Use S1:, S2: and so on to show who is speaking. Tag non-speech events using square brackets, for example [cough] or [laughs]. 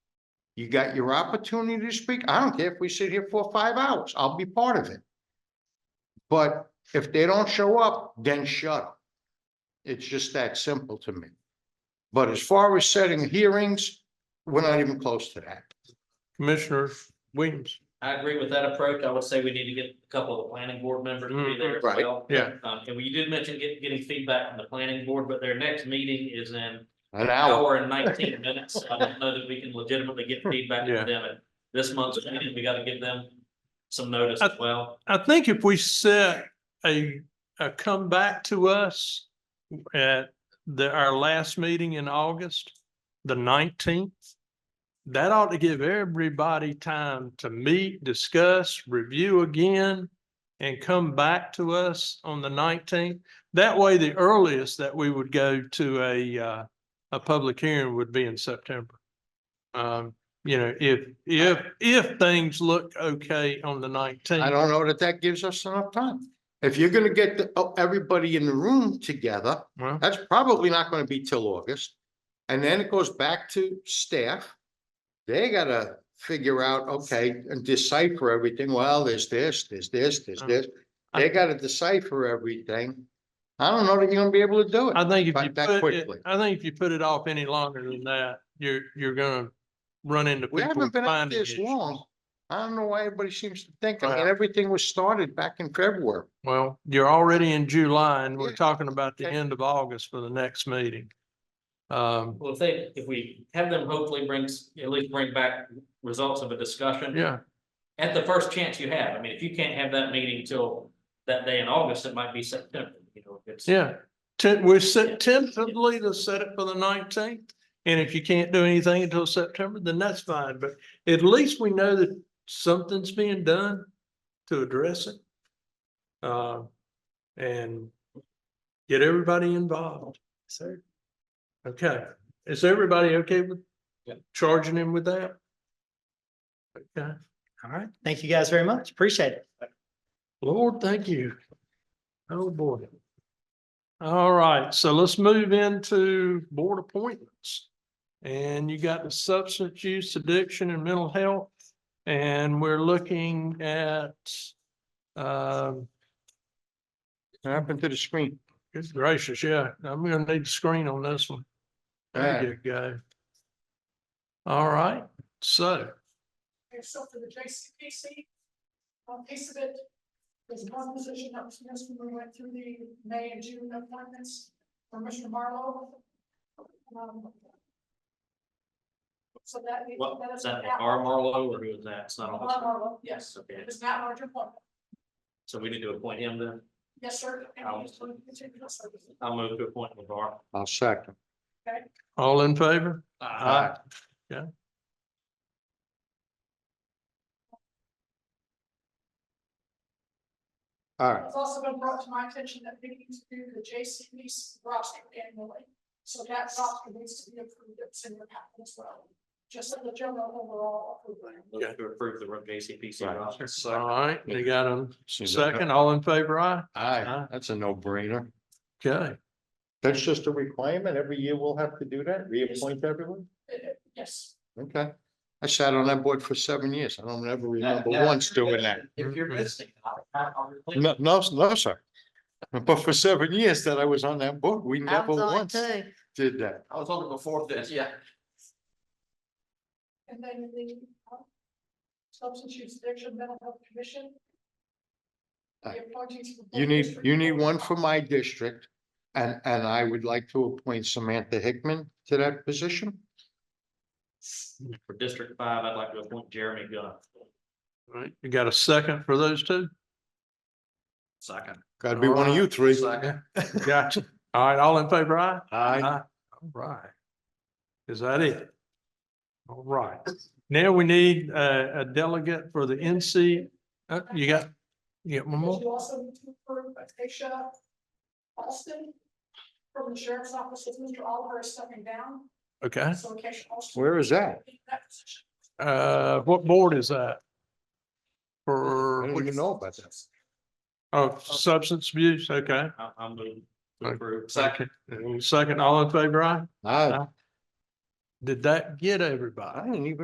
S1: You got your opportunity to speak. I don't care if we sit here for five hours. I'll be part of it. But if they don't show up, then shut up. It's just that simple to me. But as far as setting hearings, we're not even close to that.
S2: Commissioner Williams.
S3: I agree with that approach. I would say we need to get a couple of the planning board members to be there as
S1: Mhm. Right.
S3: well.
S2: Mm-hmm. Yeah.
S3: Um, and we did mention get, getting feedback from the planning board, but their next meeting is in
S1: An
S2: Oh.
S3: hour
S2: [laughs]
S3: and nineteen minutes. I don't know that we can legitimately get feedback
S2: Yeah.
S3: from them. And this month's meeting, we gotta give them some notice as well.
S2: I think if we set a, a come back to us at the, our last meeting in August, the nineteenth, that ought to give everybody time to meet, discuss, review again, and come back to us on the nineteenth. That way, the earliest that we would go to a, uh, a public hearing would be in September. Um, you know, if, if, if things look okay on the nineteenth.
S1: I don't know that that gives us enough time. If you're gonna get the- oh, everybody in the room together,
S2: Well,
S1: that's probably not gonna be till August. And then it goes back to staff. They gotta figure out, okay, and decipher everything. Well, there's this, there's this,
S2: Oh.
S1: there's this. They gotta decipher everything. I don't know that you're gonna be able to do it.
S2: I think if
S1: But
S2: you
S1: that
S2: put it,
S1: quickly.
S2: I think if you put it off any longer than that, you're, you're gonna run into
S1: We
S2: people
S1: haven't been at
S2: finding
S1: this
S2: issues.
S1: long. I don't know why everybody seems to think, I mean,
S2: Well-
S1: everything was started back in February.
S2: Well, you're already in July and we're
S1: Yeah.
S2: talking about the
S1: Okay.
S2: end of August for the next meeting. Um,
S3: Well, if they, if we have them hopefully brings, at least bring back results of a discussion.
S2: yeah,
S3: At the first chance you have. I mean, if you can't have that meeting till that day in August, it might be September, you know, if it's.
S2: yeah. Te- we're
S3: Yeah.
S2: set tentatively to set it for the nineteenth. And if you can't do anything until September, then that's fine, but at least we know that something's being done to address it. Uh, and get everybody involved.
S3: Sir.
S2: Okay, is everybody okay with
S3: Yeah.
S2: charging him with that? Okay,
S4: All right. Thank you guys very much. Appreciate it.
S2: Lord, thank you. Oh, boy. All right, so let's move into board appointments. And you got the substance use addiction and mental health. And we're looking at, um,
S1: What happened to the screen?
S2: good gracious, yeah, I'm gonna need a screen on this one. There you go. All right, so.
S5: There's something the JCPC. On piece of it. There's one position that was missed when we went through the May and June appointments for Mr. Marlowe. Um, So that. needs-
S3: What,
S5: that
S3: is
S5: is
S3: that
S5: not-
S3: R Marlowe or who is that? It's not
S5: Mark
S3: on,
S5: Marlowe, yes,
S3: okay,
S5: it is not large appointment,
S3: so we need to appoint him then?
S5: yes, sir. And we just want to continue to serve.
S3: I'll move to appoint LeVar.
S1: I'll second.
S2: All in favor?
S3: Uh,
S1: Aye.
S2: Yeah.
S1: All right,
S5: It's also been brought to my attention that we need to do the JCPC roster annually. So that roster needs to be approved, it's in your packet as well, just in the general overall approval.
S3: Move to approve the JCPC
S1: Right.
S3: roster.
S2: All right, they got a
S1: Seems like-
S2: second, all in favor, aye?
S1: aye, that's a no brainer.
S2: Okay,
S1: That's just a requirement. Every year we'll have to do that, reappoint everyone?
S5: Uh, Yes.
S1: Okay. I sat on that board for seven years. I don't ever remember
S3: Now- now,
S1: once
S3: if you're
S1: doing that. Mm-hmm.
S3: missing- If you're missing, I'll, I'll replace.
S1: No, no, no, sir. But for seven years that I was on that board, we never once did that.
S3: I was on it before this, yeah.
S5: And then the uh, Substance Use Addiction Mental Health Commission.
S1: Aye.
S5: The appointees for both
S1: You need,
S5: district
S1: you need
S5: boards.
S1: one for my district. And, and I would like to appoint Samantha Hickman to that position.
S3: For District Five, I'd like to appoint Jeremy Gunn.
S2: all right, you got a second for those two?
S3: Second.
S1: Gotta be one of you three.
S3: Second.
S2: Gotcha. All right, all in favor, aye?
S1: Aye.
S2: All right. Is that it? All right, now we need a, a delegate for the NC, uh, you got, you got one
S5: But
S2: more?
S5: You also need to approve Aisha Alston from the Sheriff's Office, as Mr. Oliver is stepping down,
S2: Okay,
S5: so Aisha Alston.
S1: Where is that?
S5: That position.
S2: uh, what board is that?
S1: I
S2: For,
S1: don't even know about that.
S2: oh, substance abuse, okay.
S3: I'll, I'll move to
S2: Okay.
S3: approve.
S2: Second, second, all in favor, aye?
S1: I,
S2: Did that get everybody?
S1: I didn't even